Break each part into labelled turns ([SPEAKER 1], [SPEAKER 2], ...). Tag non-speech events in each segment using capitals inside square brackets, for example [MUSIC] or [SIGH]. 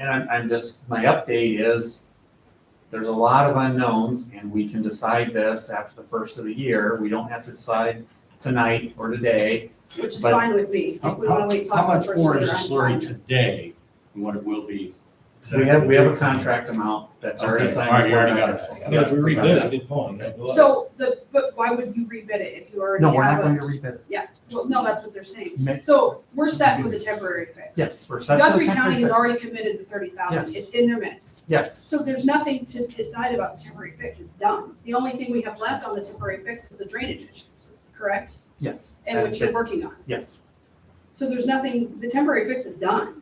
[SPEAKER 1] And I'm, I'm just, my update is, there's a lot of unknowns, and we can decide this after the first of the year. We don't have to decide tonight or today.
[SPEAKER 2] Which is
[SPEAKER 1] But-
[SPEAKER 2] fine with me,
[SPEAKER 3] How-
[SPEAKER 2] if we wanna wait
[SPEAKER 3] How
[SPEAKER 2] talk
[SPEAKER 3] much
[SPEAKER 2] first
[SPEAKER 3] more
[SPEAKER 2] year,
[SPEAKER 3] is the
[SPEAKER 2] I'm
[SPEAKER 3] slurry
[SPEAKER 2] fine.
[SPEAKER 3] today than what it will be?
[SPEAKER 1] We have, we have a contract amount that's already
[SPEAKER 3] Okay,
[SPEAKER 1] signed.
[SPEAKER 3] all right, you already
[SPEAKER 1] before
[SPEAKER 3] got it.
[SPEAKER 1] I-
[SPEAKER 4] Yeah, if we
[SPEAKER 1] we got
[SPEAKER 4] rebid it,
[SPEAKER 1] that.
[SPEAKER 4] I did Paul, and I blew up.
[SPEAKER 2] So the, but why would you rebid it if you already
[SPEAKER 1] No, we're not
[SPEAKER 2] have
[SPEAKER 1] going
[SPEAKER 2] a,
[SPEAKER 1] to rebid it.
[SPEAKER 2] well, no, that's what they're saying.
[SPEAKER 1] Ma-
[SPEAKER 2] So we're set for the temporary fix.
[SPEAKER 1] Yes, we're set for the
[SPEAKER 2] Guthrie County
[SPEAKER 1] temporary
[SPEAKER 2] has
[SPEAKER 1] fix.
[SPEAKER 2] already committed the thirty thousand,
[SPEAKER 1] Yes.
[SPEAKER 2] it's in their minutes.
[SPEAKER 1] Yes,
[SPEAKER 2] So there's nothing to decide about the temporary fix, it's done. The only thing we have left on the temporary fix is the drainage issues, correct?
[SPEAKER 1] yes.
[SPEAKER 2] And which you're working on.
[SPEAKER 1] Yes,
[SPEAKER 2] So there's nothing, the temporary fix is done.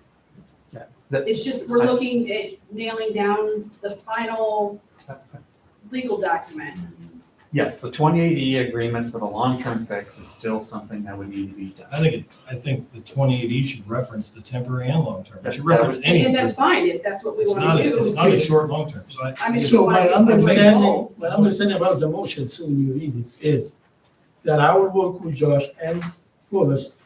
[SPEAKER 1] Yeah, that-
[SPEAKER 2] It's just, we're looking at nailing down the final legal document.
[SPEAKER 1] yes, the twenty-eight E agreement for the long-term fix is still something that would need to be done.
[SPEAKER 4] I think, it- I think the twenty-eight E should reference the temporary and long-term, it
[SPEAKER 1] That-
[SPEAKER 4] should
[SPEAKER 1] that
[SPEAKER 4] reference
[SPEAKER 2] And
[SPEAKER 4] any.
[SPEAKER 2] and that's fine if that's what we
[SPEAKER 4] It's not,
[SPEAKER 2] want to
[SPEAKER 4] a-
[SPEAKER 2] do.
[SPEAKER 4] it's not a short, long-term, so I.
[SPEAKER 2] I mean,
[SPEAKER 4] it's-
[SPEAKER 2] so-
[SPEAKER 5] So my
[SPEAKER 2] Why-
[SPEAKER 5] understanding,
[SPEAKER 2] Why-
[SPEAKER 5] my understanding about the motion soon you read it is that I will work with Josh and Flores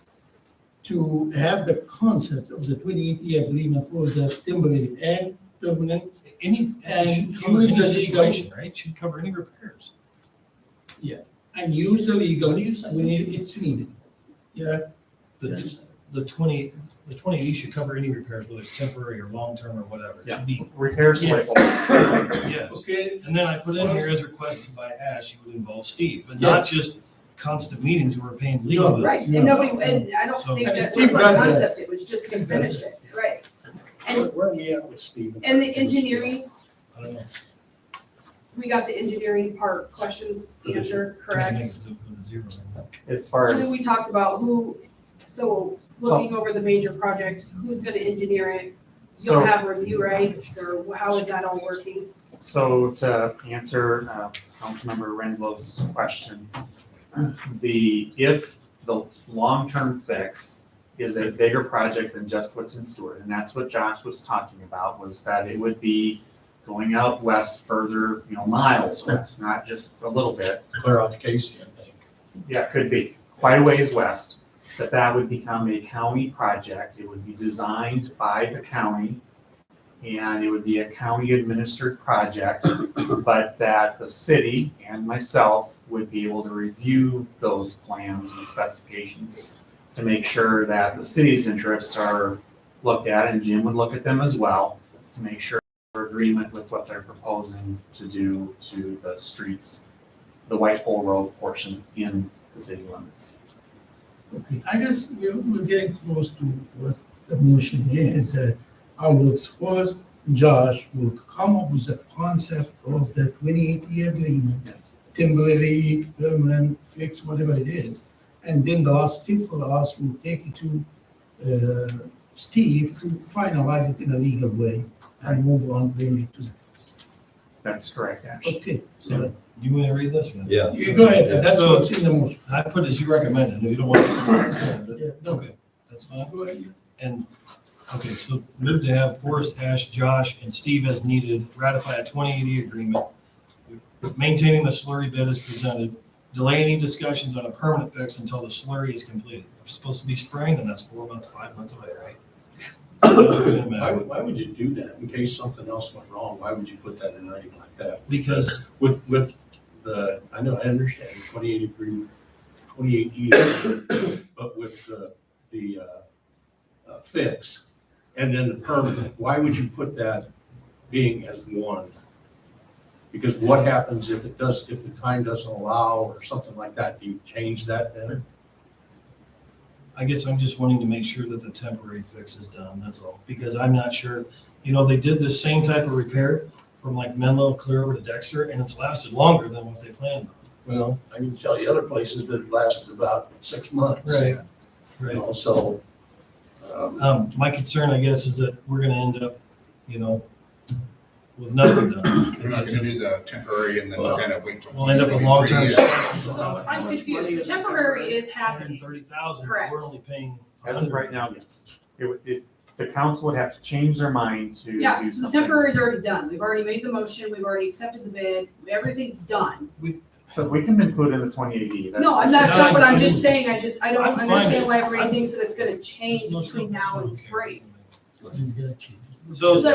[SPEAKER 5] to have the concept of the twenty-eight year agreement for the temporary and permanent.
[SPEAKER 4] Any, it
[SPEAKER 5] And
[SPEAKER 4] should cover any
[SPEAKER 5] use the legal-
[SPEAKER 4] situation, right, It should cover any repairs.
[SPEAKER 5] And use the legal
[SPEAKER 4] do you
[SPEAKER 5] when it- it's needed. Yeah,
[SPEAKER 4] The, the twenty, the twenty-eight E should cover any repairs, whether it's temporary or long-term or whatever, it
[SPEAKER 1] Yeah.
[SPEAKER 4] should be,
[SPEAKER 1] Repairs
[SPEAKER 5] Yeah.
[SPEAKER 1] label.
[SPEAKER 4] yes.
[SPEAKER 5] okay,
[SPEAKER 4] And then I put in here as requested by Ash, you would involve Steve, but not
[SPEAKER 5] Yes.
[SPEAKER 4] just constant meetings where we're paying legal
[SPEAKER 5] No,
[SPEAKER 4] bills.
[SPEAKER 2] Right, and nobody, and I don't
[SPEAKER 4] So-
[SPEAKER 2] think
[SPEAKER 5] And
[SPEAKER 2] that's
[SPEAKER 5] Steve
[SPEAKER 2] the
[SPEAKER 5] does that.
[SPEAKER 2] concept, it was just to
[SPEAKER 5] Steve
[SPEAKER 2] finish
[SPEAKER 5] does
[SPEAKER 2] it, right?
[SPEAKER 6] Where
[SPEAKER 2] And,
[SPEAKER 6] where are we at with Steve?
[SPEAKER 2] and the engineering,
[SPEAKER 4] I don't know.
[SPEAKER 2] we got the engineering part questions answered, correct?
[SPEAKER 4] Everything is a- is a zero.
[SPEAKER 1] As far
[SPEAKER 2] And then
[SPEAKER 1] as,
[SPEAKER 2] we talked about who, so looking over the major project, who's gonna engineer it? You'll
[SPEAKER 1] so,
[SPEAKER 2] have review rights, or how is that all working?
[SPEAKER 1] so to answer, uh, Councilmember Renslow's question, [CLEARS THROAT] the, if the long-term fix is a bigger project than just what's in Stewart, and that's what Josh was talking about, was that it would be going out west further, you know, miles west, not just a little bit.
[SPEAKER 6] Clear out Casey, I think.
[SPEAKER 1] yeah, could be, quite a ways west, that that would become a county project. It would be designed by the county, and it would be a county-administered project, but that the city and myself would be able to review those plans and specifications to make sure that the city's interests are looked at, and Jim would look at them as well, to make sure we're in agreement with what they're proposing to do to the streets, the White Pole Road portion in the city limits.
[SPEAKER 5] okay, I guess we're, we're getting close to what the motion is, that I will first, Josh will come up with the concept of the twenty-eight year agreement temporary, permanent, fixed, whatever it is. And then the last tip for us will take it to uh, Steve to finalize it in a legal way and move on, bring it to,
[SPEAKER 1] That's correct, Ash.
[SPEAKER 5] okay. So
[SPEAKER 4] You want to read this one?
[SPEAKER 7] Yeah.
[SPEAKER 5] you go ahead, that's
[SPEAKER 4] So-
[SPEAKER 5] what's in the motion.
[SPEAKER 4] I put as you recommended, no, you don't want to.
[SPEAKER 5] Yeah.
[SPEAKER 4] Okay, that's fine.
[SPEAKER 5] Go ahead.
[SPEAKER 4] And, okay, so move to have Forrest, Ash, Josh, and Steve as needed ratify a twenty eighty agreement, maintaining the slurry bid as presented, delay any discussions on a permanent fix until the slurry is completed. If it's supposed to be spring, then that's four months, five months away, right? Doesn't
[SPEAKER 6] Why,
[SPEAKER 4] matter.
[SPEAKER 6] would- why would you do that? In case something else went wrong, why would you put that in writing like that?
[SPEAKER 4] Because
[SPEAKER 6] With, with the, I know, I understand twenty-eight agreement, twenty-eight E, agreement, but with the, the, uh, uh, fix and then the permanent, why would you put that being as one? Because what happens if it does, if the time doesn't allow or something like that? Do you change that then?
[SPEAKER 4] I guess I'm just wanting to make sure that the temporary fix is done, that's all, because I'm not sure, you know, they did the same type of repair from like Menlo clear over to Dexter, and it's lasted longer than what they planned.
[SPEAKER 6] Well, I can tell you other places that it lasted about six months. You
[SPEAKER 4] Right.
[SPEAKER 6] know, so, um,
[SPEAKER 4] Um, my concern, I guess, is that we're gonna end up, you know, with nothing done.
[SPEAKER 8] We're not gonna do the temporary and then
[SPEAKER 6] Well,
[SPEAKER 8] kind of wait till.
[SPEAKER 4] We'll end up with long-term.
[SPEAKER 8] 2023.
[SPEAKER 2] So I'm confused, the temporary is happening.
[SPEAKER 4] Thirty thousand,
[SPEAKER 2] Correct.
[SPEAKER 4] we're only paying.
[SPEAKER 1] As of right now, yes. It would, it, the council would have to change their mind to do
[SPEAKER 2] Yeah, so the
[SPEAKER 1] something.
[SPEAKER 2] temporary is already done, we've already made the motion, we've already accepted the bid, everything's done.
[SPEAKER 1] So we can include in the twenty eighty.
[SPEAKER 2] No, I'm not, that's not what I'm just saying, I just, I
[SPEAKER 4] I'm
[SPEAKER 2] don't
[SPEAKER 4] fine.
[SPEAKER 2] understand why everybody thinks that it's gonna change between now and spring.
[SPEAKER 5] It's gonna change.
[SPEAKER 4] So